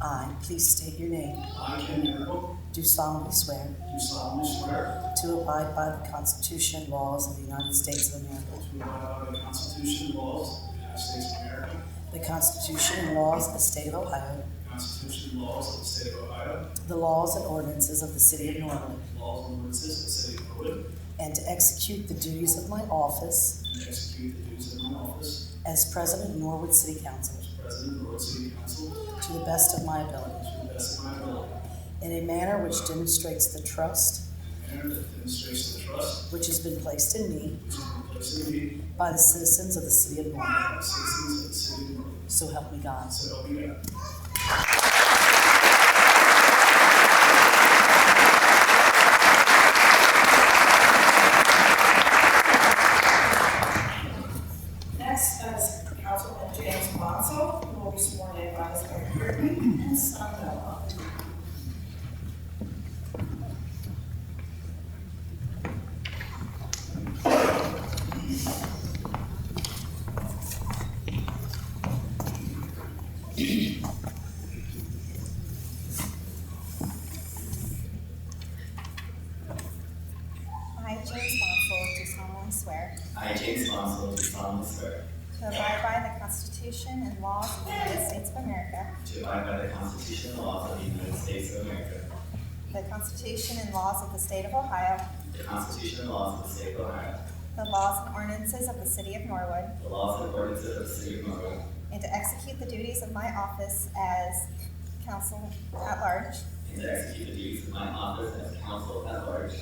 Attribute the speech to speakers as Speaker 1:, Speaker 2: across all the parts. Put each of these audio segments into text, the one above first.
Speaker 1: I, please state your name,
Speaker 2: I, Ken Miracle,
Speaker 1: do solemnly swear
Speaker 2: do solemnly swear
Speaker 1: to abide by the Constitution and laws of the United States of America,
Speaker 2: to abide by the Constitution and laws of the United States of America,
Speaker 1: the Constitution and laws of the State of Ohio,
Speaker 2: the Constitution and laws of the State of Ohio,
Speaker 1: the laws and ordinances of the City of Norwood,
Speaker 2: the laws and ordinances of the City of Norwood,
Speaker 1: and to execute the duties of my office
Speaker 2: and to execute the duties of my office
Speaker 1: as President of Norwood City Council
Speaker 2: as President of the Norwood City Council
Speaker 1: to the best of my ability,
Speaker 2: to the best of my ability,
Speaker 1: in a manner which demonstrates the trust
Speaker 2: in a manner that demonstrates the trust
Speaker 1: which has been placed in me
Speaker 2: which has been placed in me
Speaker 1: by the citizens of the City of Norwood.
Speaker 2: by the citizens of the City of Norwood.
Speaker 1: So help me God.
Speaker 2: So help me God.
Speaker 3: Next is Councilman James Bonzo, who will be sworn in by his Mayor Kirkland and son Noah.
Speaker 4: I, James Bonsall, do solemnly swear
Speaker 5: I, James Bonsall, do solemnly swear
Speaker 4: to abide by the Constitution and laws of the United States of America,
Speaker 5: to abide by the Constitution and laws of the United States of America,
Speaker 4: the Constitution and laws of the State of Ohio,
Speaker 5: the Constitution and laws of the State of Ohio,
Speaker 4: the laws and ordinances of the City of Norwood,
Speaker 5: the laws and ordinances of the City of Monroe,
Speaker 4: and to execute the duties of my office as council at large
Speaker 5: and to execute the duties of my office as counsel at large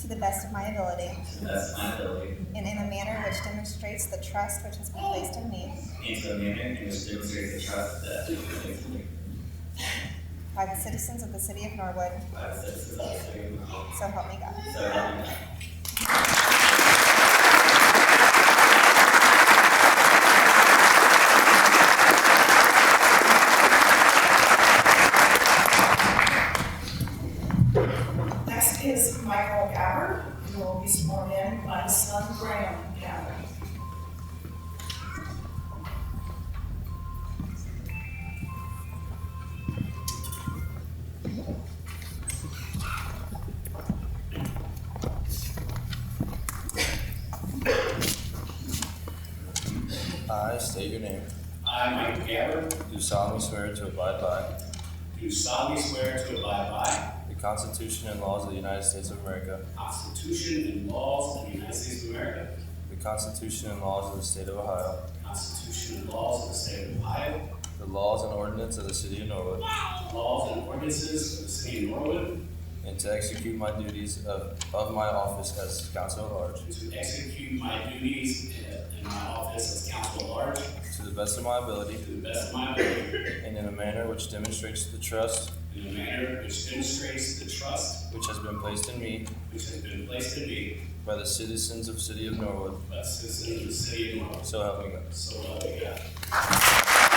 Speaker 4: to the best of my ability,
Speaker 5: to the best of my ability,
Speaker 4: and in a manner which demonstrates the trust which has been placed in me
Speaker 5: and to a manner in which demonstrates the trust that has been placed in me
Speaker 4: by the citizens of the City of Norwood.
Speaker 5: by the citizens of the City of Monroe.
Speaker 4: So help me God.
Speaker 5: So help me God.
Speaker 3: Next is Michael Gabbard, who will be sworn in by his son Graham Gabbard.
Speaker 6: I state your name.
Speaker 2: I, Michael Gabbard,
Speaker 6: Do solemnly swear to abide by
Speaker 2: do solemnly swear to abide by
Speaker 6: the Constitution and laws of the United States of America,
Speaker 2: the Constitution and laws of the United States of America,
Speaker 6: the Constitution and laws of the State of Ohio,
Speaker 2: Constitution and laws of the state of Ohio,
Speaker 6: the laws and ordinances of the City of Norwood,
Speaker 2: laws and ordinances of the city of Norwood,
Speaker 6: and to execute my duties of, of my office as counsel at large
Speaker 2: and to execute my duties in my office as counsel at large
Speaker 6: to the best of my ability
Speaker 2: to the best of my ability
Speaker 6: and in a manner which demonstrates the trust
Speaker 2: in a manner which demonstrates the trust
Speaker 6: which has been placed in me
Speaker 2: which has been placed in me
Speaker 6: by the citizens of City of Norwood.
Speaker 2: by the citizens of the city of Norwood.
Speaker 6: So help me God.
Speaker 2: So help me God.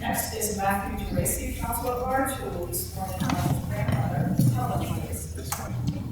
Speaker 3: Next is Matthew DeRacy, Council at Large, who will be sworn in by his grandmother, Helen DeRacy.